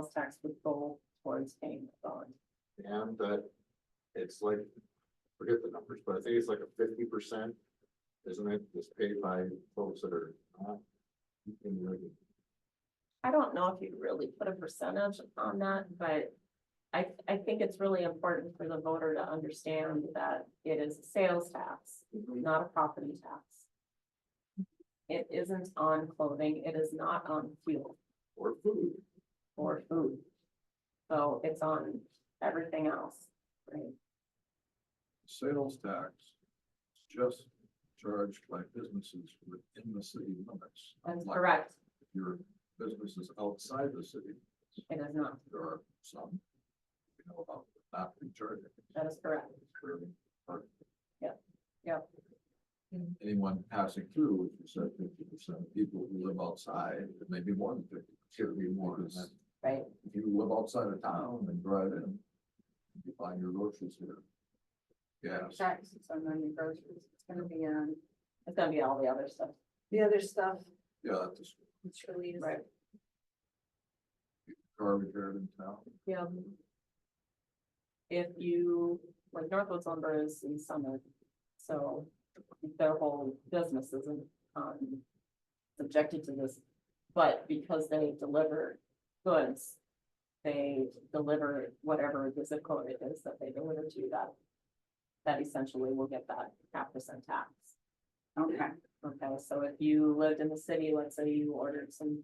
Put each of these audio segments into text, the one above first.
sales tax would go towards paying the bond. And that it's like, forget the numbers, but I think it's like a fifty percent, isn't it, that's paid by folks that are not. in the regular- I don't know if you really put a percentage on that, but I, I think it's really important for the voter to understand that it is a sales tax, not a property tax. It isn't on clothing, it is not on fuel Or food, or food. So it's on everything else, right? sales tax is just charged by businesses within the city limits. That's Like, correct, If your business is outside the city, it is not, there are some, you know, about not recharging. that is correct, Yep. Anyone passing through, if you said fifty percent of people who live outside, it may be more than fifty, it could be more than that. right? If you live outside of town and drive in, you find your groceries here. Yes, tax, it's on your groceries, it's gonna be on It's gonna be all the other stuff, the other stuff, yeah, that's it surely is. right? garbage here in town. Yeah. If you, like Northwoods lumber is in Summit, so their whole business isn't, um, subjected to this. But because they deliver goods, they deliver whatever the zip code it is that they deliver to that. That essentially will get that half percent tax. Okay, Okay, so if you lived in the city, let's say you ordered some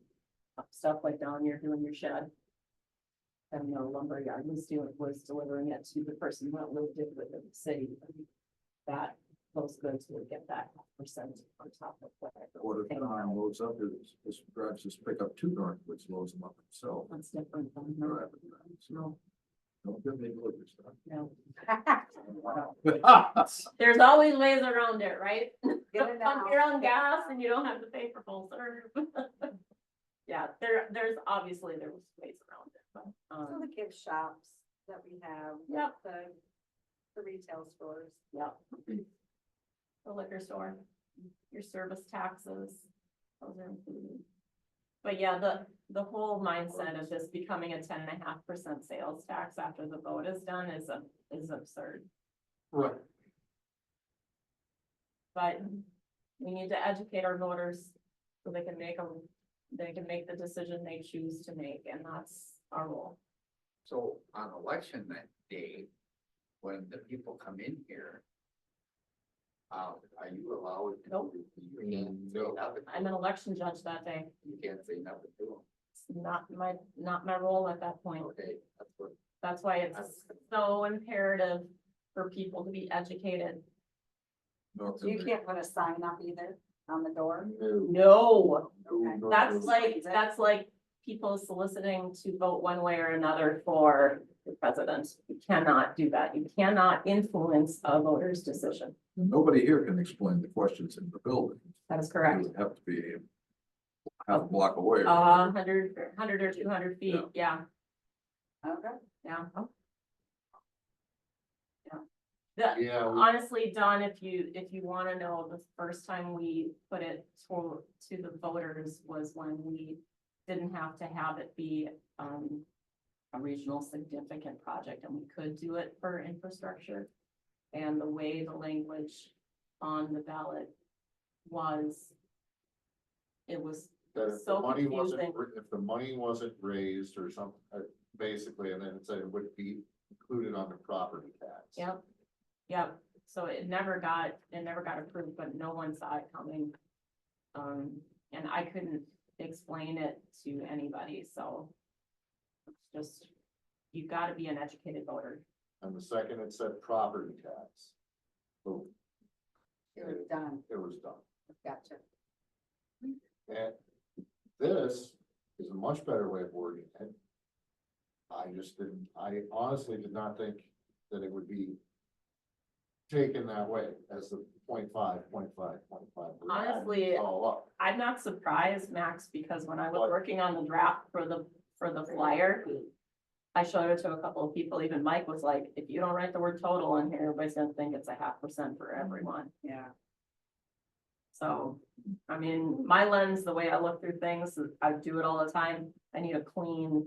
stuff like down here doing your shed. And the lumber yard was doing, was delivering it to the person that lived it within the city. That, those goods would get that percent on top of whatever. What if Thing. Don loads up his, his drives his pickup to North, which loads them up himself. That's different than the Drive it around, So, don't give me liquor no. stuff. There's always ways around it, right? Get it Pump out. your own gas and you don't have to pay for full serve. Yeah, there, there's obviously there was ways around it, but, so um, the gift shops that we have. Yep. The, the retail stores, yeah. The liquor store, your service taxes, those are included. But yeah, the, the whole mindset of this becoming a ten and a half percent sales tax after the vote is done is, a- is absurd. Right. But we need to educate our voters so they can make them, they can make the decision they choose to make, and that's our role. So on election that day, when the people come in here. Um, are you allowed? to- Nope. You can't say nothing, I'm an election judge that day. you can't say nothing to It's not my, not my role at that them, point. okay, that's what. That's why it's so imperative for people to be educated. North you Dakota. can't put a sign up either on the door, No, No, no, no, no. that's like, that's like people soliciting to vote one way or another for the president. You cannot do that. You cannot influence a voter's decision. Nobody here can explain the questions in the building. That is It correct. Uh-huh. would have to be half a block away. A or whatever. hundred, hundred or two hundred feet, Yeah. yeah, okay? yeah. Yeah. The- Yeah, Um, we- Honestly, Don, if you, if you wanna know, the first time we put it to, to the voters was when we didn't have to have it be, um, a regional significant project, and we could do it for infrastructure. And the way the language on the ballot was, it was, that if so the money wasn't, confusing. ra- if the money wasn't raised or something, basically, and then it said it would be included on the property tax. yep, yep, so it never got, it never got approved, but no one saw it coming. Um, and I couldn't explain it to anybody, so. it's Just, you gotta be an educated voter. And the second it said property tax. Boom, It was done, it was done. gotcha. And this is a much better way of wording it. I just didn't, I honestly did not think that it would be taken that way as the point five, point five, point five. We're adding Honestly, it All up. I'm not surprised, Max, because when I was What? working on the draft for the, for the flyer. I showed it to a couple of people, even Mike was like, if you don't write the word total in here, everybody's gonna think it's a half percent for everyone. Yeah. So, I mean, my lens, the way I look through things, I do it all the time. I need a clean